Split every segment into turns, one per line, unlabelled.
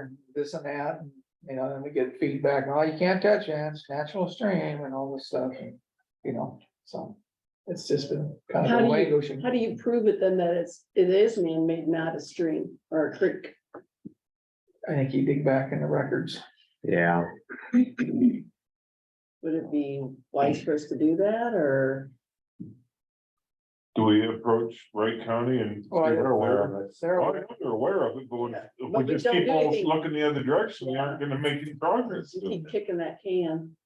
and this and that, and, you know, and we get feedback, oh, you can't touch it, it's natural stream and all this stuff, and, you know, so. It's just been kind
How
of
do
a
you-
way ocean.
How do you prove it then that it's, it is man-made, not a stream or a creek?
I think you dig back in the records.
Yeah,
Would it be wise for us to do that or?
Do we approach Wright County and?
Oh, yeah.
They're aware of it.
They're
Oh,
aware.
yeah, They're aware of it, but when- if
But
we
we
just
don't
keep
do
on
anything.
looking the other direction, we aren't gonna make any progress.
You keep kicking that can.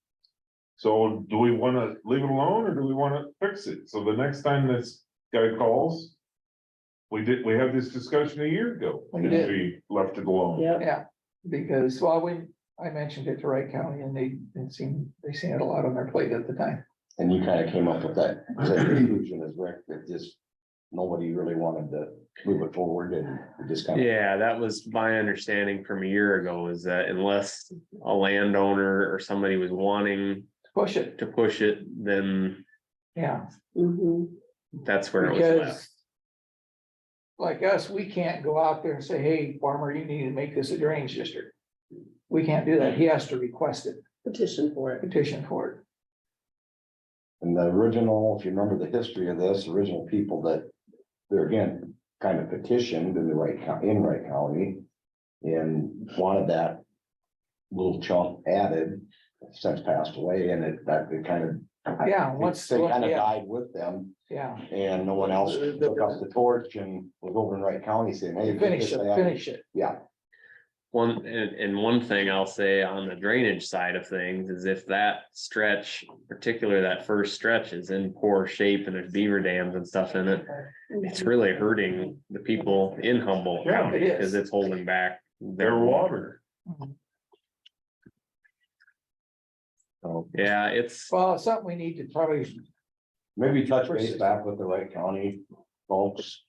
So do we wanna leave it alone or do we wanna fix it? So the next time this guy calls. We did, we had this discussion a year ago,
We
and
did.
we left it alone.
Yep.
Yeah, because, well, we, I mentioned it to Wright County and they, it seemed, they seen it a lot on their plate at the time.
And you kind of came up with that same conclusion as Rick, that just nobody really wanted to move it forward and we just kind of.
yeah, that was my understanding from a year ago is that unless a landowner or somebody was wanting
Push it,
to push it, then
yeah,
Mhm.
that's where it was left.
because. Like us, we can't go out there and say, hey, farmer, you need to make this a drainage district. We can't do that. He has to request it,
Petition for it.
petition for it.
And the original, if you remember the history of this, the original people that, they're again, kind of petitioned in the right, co- in Wright County. And wanted that little chunk added, since passed away, and it, that it kind of.
Yeah, once,
They kind of
yeah,
died with them,
yeah,
and no one else took up the torch and was over in Wright County saying, hey. get
finish
this
it,
added."
finish it.
Yeah,
One, and, and one thing I'll say on the drainage side of things is if that stretch, particularly that first stretch is in poor shape and there's beaver dams and stuff in it. It's
Mm-hmm.
really hurting the people in Humboldt
Yeah,
County
it is.
because it's holding back their
Their
water.
water.
so
Yeah, it's,
Well, it's something we need to probably,
maybe touch base back with the Wright County folks,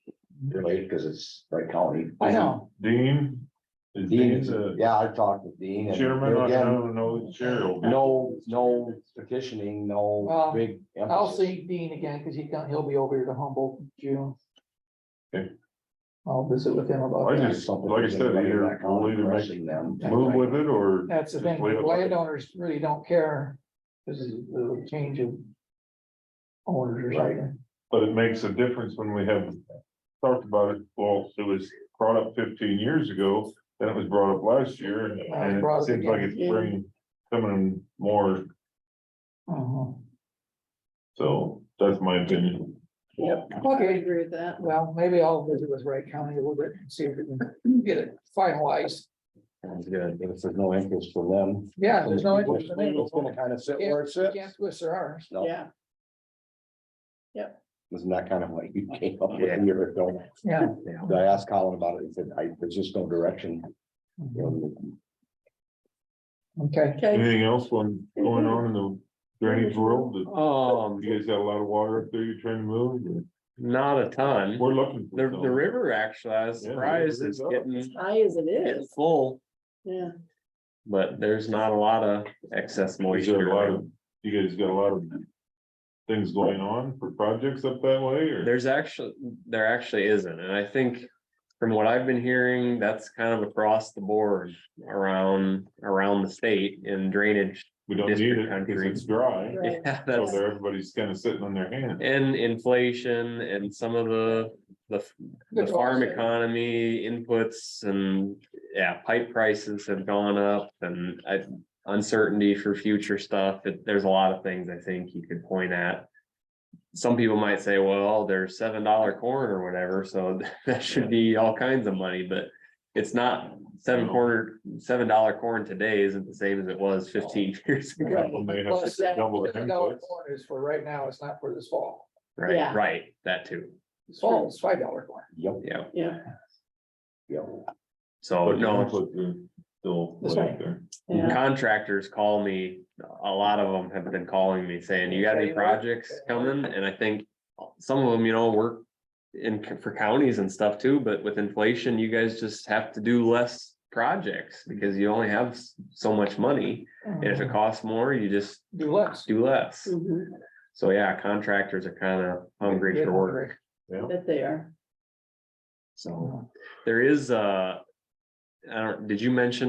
really, because it's Wright County.
I know,
Dean, is Dean the
Yeah, I talked with Dean. and
chairman? I
again,
don't know, chair.
No, no petitioning, no
Well,
big.
I'll
emphasis.
see Dean again, because he's gonna, he'll be over here to Humboldt in June.
Okay.
I'll visit with him about
I
that.
just- like I said,
Something
either
that kind of
we'll either make-
pressing them.
Move with it or?
That's the
just
thing,
leave it like it?
landowners really don't care, this is the change of. Owners or
Right.
something,
But it makes a difference when we have talked about it, well, it was brought up fifteen years ago, then it was brought up last year, and and
Brought
it
up
seems like
again.
it's bringing, coming more,
Mhm.
so that's my opinion.
I
okay,
agree with that.
well, maybe I'll visit with Wright County a little bit and see if we can get it finalized,
Sounds good. If there's no interest for them.
yeah, there's no. interest in
It's gonna
it.
kind of sit where it sits.
Can't twist their arms,
No,
Yeah.
isn't that kind of what you came up with
Yeah.
a year ago?
yeah,
I asked Colin about it. He said, I, there's just no direction. you know,
okay,
Okay.
Anything else on, going on in the drainage world? that-
um,
You guys got a lot of water up there you're trying to move,
not a ton.
we're looking.
The,
for
the
some.
river actually, I was
Yeah, the
surprised
river's
is
up.
getting,
High as it
getting
is.
full,
Yeah.
but there's not a lot of excess
You got a lot
moisture.
of, you guys got a lot of things going on for projects up that way, or?
There's actually, there actually isn't, and I think from what I've been hearing, that's kind of across the board around, around the state in drainage.
We don't need it,
district
because
country.
it's dry,
Right.
Yeah,
so
that's,
there, everybody's kind of sitting on their hands.
and inflation and some of the, the, the
Good
farm
also.
economy inputs and, yeah, pipe prices have gone up and I. Uncertainty for future stuff, It- there's a lot of things I think you could point at. Some people might say, well, there's seven dollar corn or whatever, so that should be all kinds of money, but. It's not seven corner, seven dollar corn today isn't the same as it was fifteen years ago,
When they have
Plus,
to double their
the dollar
inputs.
corn is for right now, it's not for this fall,
right,
Yeah.
right, that too,
this fall is five dollar corn,
Yep,
yeah,
Yeah.
yep.
so
But
Oh, no.
that's what the- they'll
That's
lay
right.
there.
Yeah.
contractors call me, a lot of them have been calling me saying, you got any projects coming? And I think some of them, you know, work in c- for counties and stuff too, but with inflation, you guys just have to do less projects because you only have s- so much money. And if
Mm-hmm.
it costs more, you just
do less.
do less.
Mhm.
So yeah, contractors are kind of hungry for work.
Yeah.
That they are.
So there is, uh, I don't, did you mention